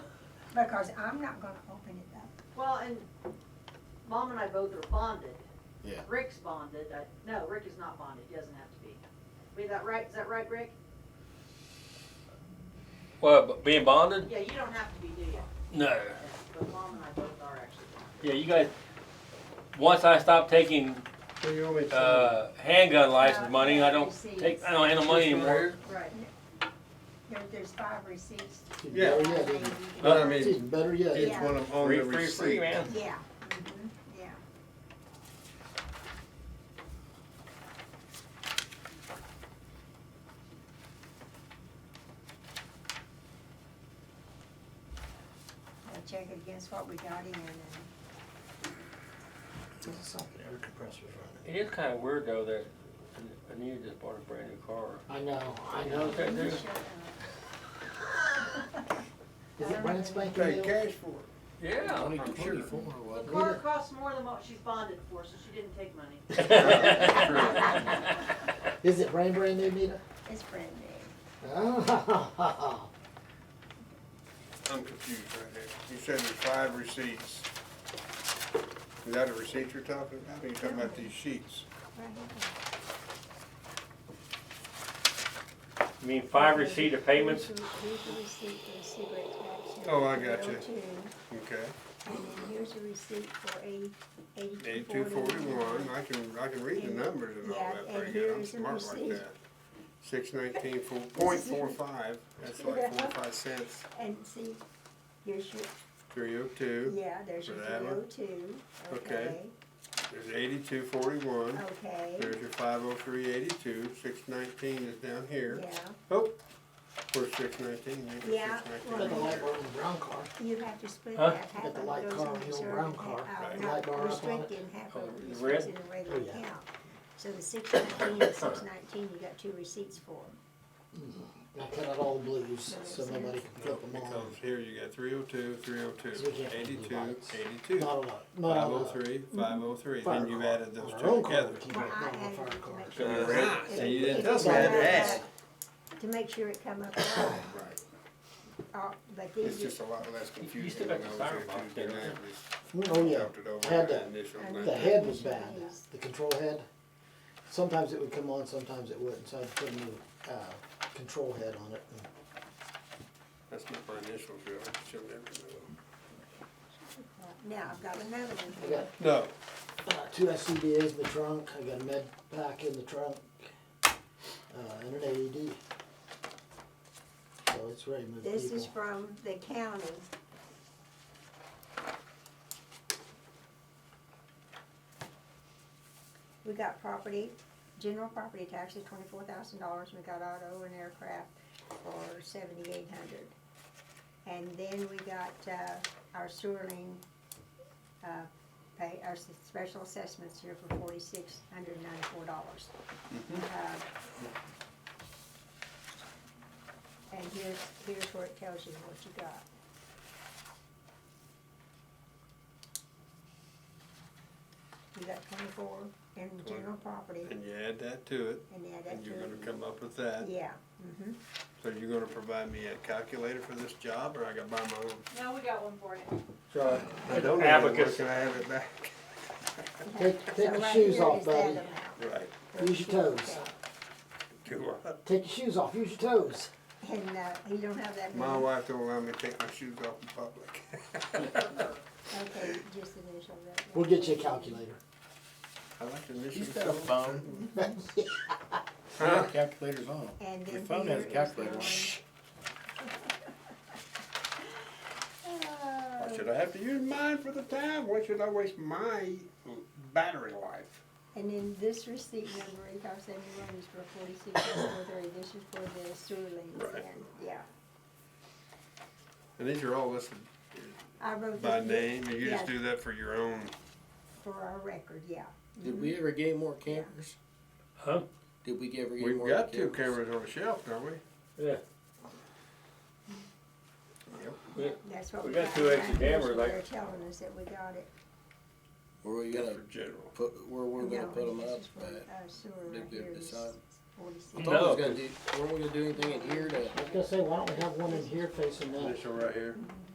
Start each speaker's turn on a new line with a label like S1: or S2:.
S1: because I'm not gonna open it up.
S2: Well, and Mom and I both are bonded.
S3: Yeah.
S2: Rick's bonded, I, no, Rick is not bonded, he doesn't have to be. Wait, that right, is that right, Rick?
S4: Well, but being bonded?
S2: Yeah, you don't have to be, do you?
S4: No.
S2: But Mom and I both are actually bonded.
S4: Yeah, you guys, once I stop taking,
S5: So you owe me
S4: uh, handgun license money, I don't
S1: Receipts.
S4: take, I don't handle money anymore.
S2: Right.
S1: There, there's five receipts. Yeah,
S5: Yeah, Oh, yeah,
S1: maybe.
S5: But I
S6: It's
S5: mean,
S6: better yet.
S5: each one of them on the receipt.
S1: Yeah, mhm, yeah. I'll check it against what we got in and,
S4: It is kinda weird though that Anita just bought a brand new car.
S6: I know, I know.
S4: Okay,
S1: uh,
S4: dude.
S1: shut up.
S6: Is it brand spanking
S5: Pay
S6: new?
S5: cash for it.
S4: Yeah,
S6: Only
S4: I'm sure.
S6: twenty-four,
S2: Well,
S6: wasn't
S2: the
S6: it?
S2: car costs more than what she's bonded for, so she didn't take money.
S6: Is it brand, brand new, Nita?
S1: It's brand new.
S6: Oh,
S5: I'm confused right here. You said there's five receipts. Is that a receipt you're talking about? Or you talking about these sheets?
S1: Right here.
S4: You mean five receipt of payments?
S1: Here's a receipt for a cigarette tax. here,
S5: Oh, I got you.
S1: 202,
S5: Okay.
S1: And then here's a receipt for eighty,
S5: Eighty-two
S1: eighty-two
S5: forty-one.
S1: forty-one.
S5: I can, I can read the numbers and all
S1: Yeah,
S5: that
S1: and
S5: pretty good. I'm
S1: here's the
S5: smart like
S1: receipt.
S5: that. Six nineteen four, point four five. That's like forty-five cents.
S1: And see, here's your,
S5: Three oh two.
S1: yeah, there's your
S5: For that
S1: three
S5: one?
S1: oh two, okay,
S5: Okay. There's eighty-two forty-one.
S1: okay,
S5: There's your five oh three eighty-two. Six nineteen is down
S1: yeah.
S5: here. Oh, where's six nineteen?
S1: Yeah,
S6: Got the light bar on the brown car.
S1: You have to split
S4: Huh?
S1: that, half
S6: Got
S1: of
S6: the
S1: it
S6: light
S1: goes
S6: car
S1: on
S6: and the old
S1: reserve,
S6: brown
S1: and
S6: car.
S1: half, uh,
S5: Right.
S6: Light
S1: not
S6: bar up on it.
S1: restricted, and half of
S4: Oh,
S1: it
S4: the
S1: is
S4: red?
S1: in a regular
S6: Oh, yeah.
S1: account. So the six nineteen and six nineteen, you got two receipts for.
S6: I cut out all the blues, so nobody can flip them on.
S5: Because here you got 302, 302,
S6: So we can't
S5: 82,
S6: lights.
S5: 82,
S6: Not a lot, not a lot.
S5: 503, 503.
S6: Fire
S5: Then you've
S6: car.
S5: added those
S6: On our
S5: two
S6: own car,
S5: together.
S6: we keep
S1: Well, I
S6: it on our
S1: added
S6: fire
S1: it to
S6: car.
S1: make
S5: So
S1: sure.
S5: you're right.
S1: it-
S5: So you didn't
S1: it
S5: tell me I
S1: come
S5: had
S1: up,
S5: to ask.
S1: To make sure it come up, at all.
S5: Right.
S1: Uh, but
S5: It's
S1: these,
S5: just a lot less confusing.
S4: still got
S5: when
S4: the
S5: I was
S4: fire
S5: here
S4: box
S5: Tuesday
S4: there,
S5: night,
S6: Oh,
S5: we
S6: yeah.
S5: talked it over
S6: Had
S5: the
S6: that.
S5: initial
S1: Had
S5: night.
S6: The head was bad, the control head. Sometimes it would come on, sometimes it wouldn't, so I'd put a new, uh, control head on it.
S5: That's not my initials, really. She'll never know.
S1: now I've got another one
S6: I
S1: here.
S6: got
S5: No,
S6: uh, two SCBA's in the trunk, I got a med pack in the trunk, uh, and an AED. So it's ready to move
S1: This is
S6: people.
S1: from the county. We got property, general property taxes, twenty-four thousand dollars, we got auto and aircraft for seventy-eight hundred. And then we got, uh, our sewer lien, uh, pay, our s- special assessments here for forty-six hundred ninety-four dollars. Mm-hmm. Uh, And here's, here's where it tells you what you got. You got twenty-four in general property,
S5: and you add that to it,
S1: and add that
S5: and
S1: to
S5: you're gonna
S1: it.
S5: come up with that.
S1: Yeah, mhm.
S5: So you're gonna provide me a calculator for this job, or I gotta buy my own?
S2: No, we got one for you.
S5: So I don't know how to work,
S4: Abacus.
S5: Can I have it back?
S6: Take,
S1: So
S6: take your
S1: right
S6: shoes
S1: here
S6: off,
S1: is that
S6: buddy,
S1: amount.
S5: Right.
S6: use your toes,
S5: Do what?
S6: take your shoes off, use your toes.
S1: And, uh, you don't have that
S5: My
S1: many?
S5: wife don't allow me to take my shoes off in public.
S1: Okay, just initial that.
S6: We'll get you a calculator.
S5: I like to listen
S7: He's
S5: to
S7: got a
S5: stuff.
S7: phone. Yeah, Calculator's on.
S1: And
S7: Your
S1: then
S7: phone
S1: here
S7: has a
S1: is
S7: calculator
S1: the
S7: on
S1: one-
S7: it.
S1: Uh,
S5: Why should I have to use mine for the time? Why should I waste my battery life?
S1: And then this receipt number, eight five seven one, is for forty-six, four thirty, this is for the sewer liens,
S5: Right.
S1: and, yeah.
S5: And these are all listed
S1: I wrote
S5: by
S1: this
S5: name, and you just
S1: Yeah.
S5: do that for your own.
S1: for our record, yeah.
S7: Did we ever get more cameras?
S4: Huh?
S7: Did we ever get
S5: We've
S7: more
S5: got two
S7: cameras?
S5: cameras on the shelf, don't we?
S4: Yeah,
S1: That's what
S4: We
S1: we
S4: got
S1: got.
S4: two extra cameras,
S1: They're
S4: like-
S1: telling us that we got it.
S7: Where we
S5: Just
S7: gonna
S5: for general.
S7: put? Where we're gonna
S1: No,
S7: put them
S1: this
S7: up?
S1: is for,
S7: But
S1: uh, sewer
S7: did
S1: right
S7: we
S1: here is
S7: decide? I
S1: 46.
S7: thought we was
S4: No.
S7: gonna do. Weren't we gonna do anything in here to?
S6: I was gonna say, why don't we have one in here facing that?
S5: This one right here.